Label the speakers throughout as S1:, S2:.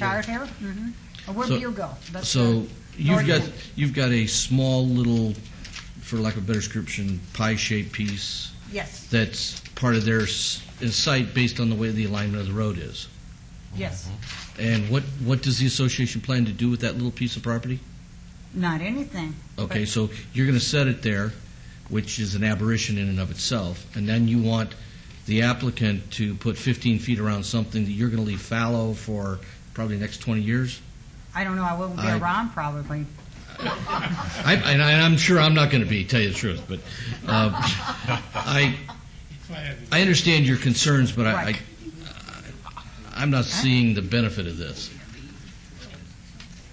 S1: Charter? Mhm. Or Where do
S2: So-
S1: you go? That's
S2: So you've
S1: Already
S2: got,
S1: done.
S2: you've got a small little, for lack of a better description, pie-shaped piece
S1: the- Yes,
S2: that's part of their s- is site based on the way the alignment of the road is.
S1: yes.
S2: And what, what does the association plan to do with that little piece of property? Mm-hmm.
S1: Not anything.
S2: Okay,
S1: But-
S2: so you're going to set it there, which is an aberration in and of itself, and then you want the applicant to put 15 feet around something that you're going to leave fallow for probably the next 20 years?
S1: I don't know, I won't be
S2: I-
S1: around probably.
S2: I, and, I, and I'm sure I'm not going to be, tell you the truth, but uh, I, I understand your concerns, but I, I,
S1: Right.
S2: I'm not seeing the benefit of this.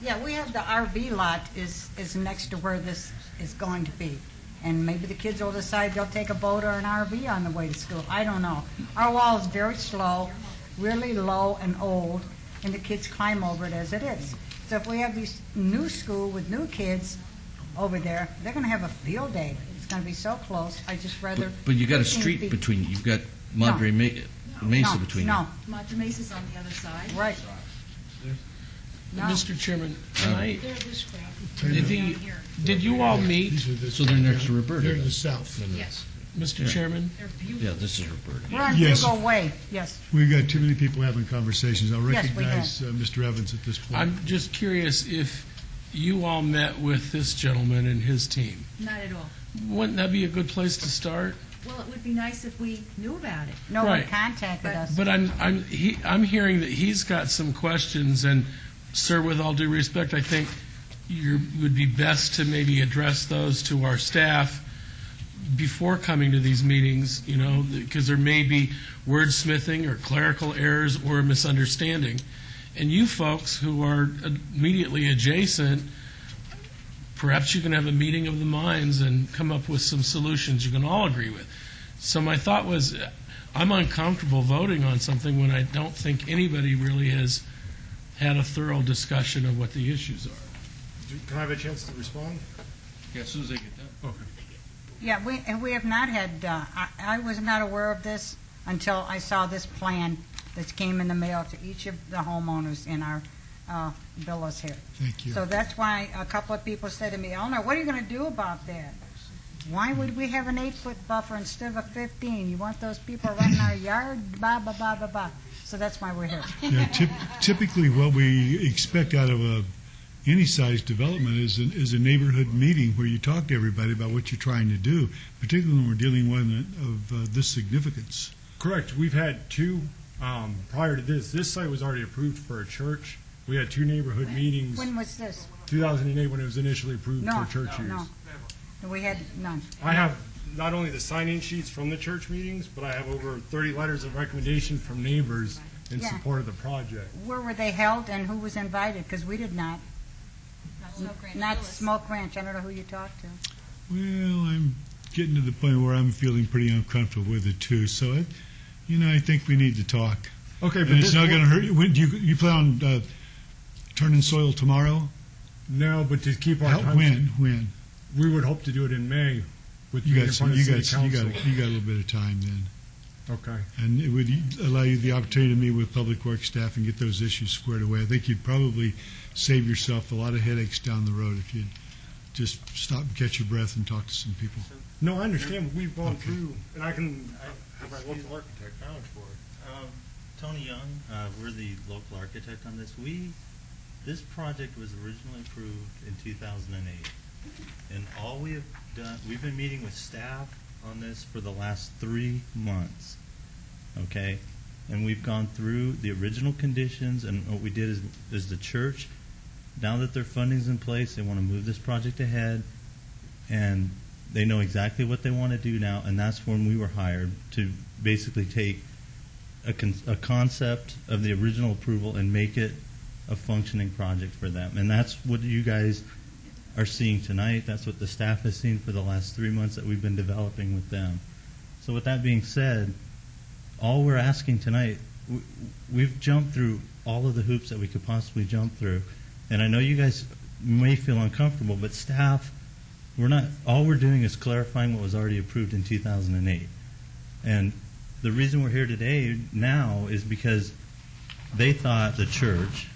S1: Yeah, we have the RV lot is, is next to where this is going to be. And maybe the kids will decide they'll take a boat or an RV on the way to school. I don't know. Our wall is very slow, really low and old, and the kids climb over it as it is. So if we have these new school with new kids over there, they're gonna have a field day. It's gonna be so close. I just
S2: But,
S1: rather.
S2: but you got a
S1: 15
S2: street
S1: feet.
S2: between you. You've got Madre Ma- Mesa
S1: No,
S2: between
S1: No,
S3: Monte Mesa's on the other side.
S1: right. No,
S4: Mr. Chairman, can I, did the, did you all meet,
S5: These are the-
S2: So they're next to Roberta,
S5: They're in
S2: then?
S5: the south.
S3: Yes,
S4: Mr. Chairman?
S3: they're
S2: you.
S3: beautiful.
S2: Yeah, this is Roberta.
S1: we're on
S5: Yes.
S1: Hugo Way, yes.
S5: We've got too many people having conversations. I'll
S1: Yes, we
S5: recognize uh, Mr. Evans at this point.
S4: I'm just curious if you all met with this gentleman and his team.
S3: Not at all.
S4: Wouldn't that be a good place to start?
S3: Well, it would be nice if we knew about it.
S1: No one
S4: Right.
S1: contacted us.
S4: But I'm, I'm, he, I'm hearing that he's got some questions, and sir, with all due respect, I think you would be best to maybe address those to our staff before coming to these meetings, you know, because there may be wordsmithing or clerical errors or misunderstanding. And you folks who are immediately adjacent, perhaps you can have a meeting of the minds and come up with some solutions you can all agree with. So my thought was, uh, I'm uncomfortable voting on something when I don't think anybody really has had a thorough discussion of what the issues are.
S6: Can I have a chance to respond?
S4: Yeah, as soon as I get that.
S1: Yeah, we, and we have not had, uh, I, I was not aware of this until I saw this plan that came in the mail to each of the homeowners in our, uh, villas here.
S5: Thank you.
S1: So that's why a couple of people said to me, Eleanor, what are you gonna do about that? Why would we have an eight-foot buffer instead of a fifteen? You want those people running our yard, blah, blah, blah, blah, blah. So that's why we're here.
S5: Yeah, typ- Typically, what we expect out of a, any size development is, an- is a neighborhood meeting where you talk to everybody about what you're trying to do, particularly when we're dealing with one of uh, this significance.
S6: Correct. We've had two um, prior to this. This site was already approved for a church. We had two neighborhood meetings,
S1: When was this?
S6: 2008 when it was initially approved
S1: No,
S6: for church use.
S1: no. We had none.
S6: I have not only the sign-in sheets from the church meetings, but I have over 30 letters of recommendation from neighbors in
S1: Yeah.
S6: support of the project.
S1: Where were they held and who was invited? Because we did not. Not Smoke Ranch. I don't know who you talked to.
S5: Well, I'm getting to the point where I'm feeling pretty uncomfortable with it too, so, I- you know, I think we need to talk.
S6: Okay, but
S5: And it's
S6: this
S5: not
S6: one-
S5: going to hurt you. When, do you, you plan on uh, turning soil tomorrow?
S6: No, but to keep our
S5: How,
S6: time.
S5: when? When?
S6: We would hope to do it in May with
S5: You
S6: being in
S5: got some,
S6: front of
S5: you
S6: city
S5: got some, you got
S6: council.
S5: you got a little bit of time then,
S6: Okay.
S5: and it would e, allow you the opportunity to meet with public works staff and get those issues squared away. I think you'd probably save yourself a lot of headaches down the road if you would just stop and catch your breath and talk to some people.
S6: No, I understand. We've gone
S5: Okay.
S6: through, and I can have my
S7: Excuse
S6: local
S7: me.
S6: architect vouch for it.
S7: Um, Tony Young, uh, we're the local architect on this. We, this project was originally approved in 2008. And all we have done, we've been meeting with staff on this for the last three months, okay? And we've gone through the original conditions, and what we did is, is the church, now that their funding's in place, they want to move this project ahead, and they know exactly what they want to do now, and that's when we were hired to basically take a, con- a concept of the original approval and make it a functioning project for them. And that's what you guys are seeing tonight. That's what the staff has seen for the last three months that we've been developing with them. So, with that being said, all we're asking tonight, we, we've jumped through all of the hoops that we could possibly jump through. And I know you guys may feel uncomfortable, but staff, we're not, all we're doing is clarifying what was already approved in 2008. And the reason we're here today now is because they thought the church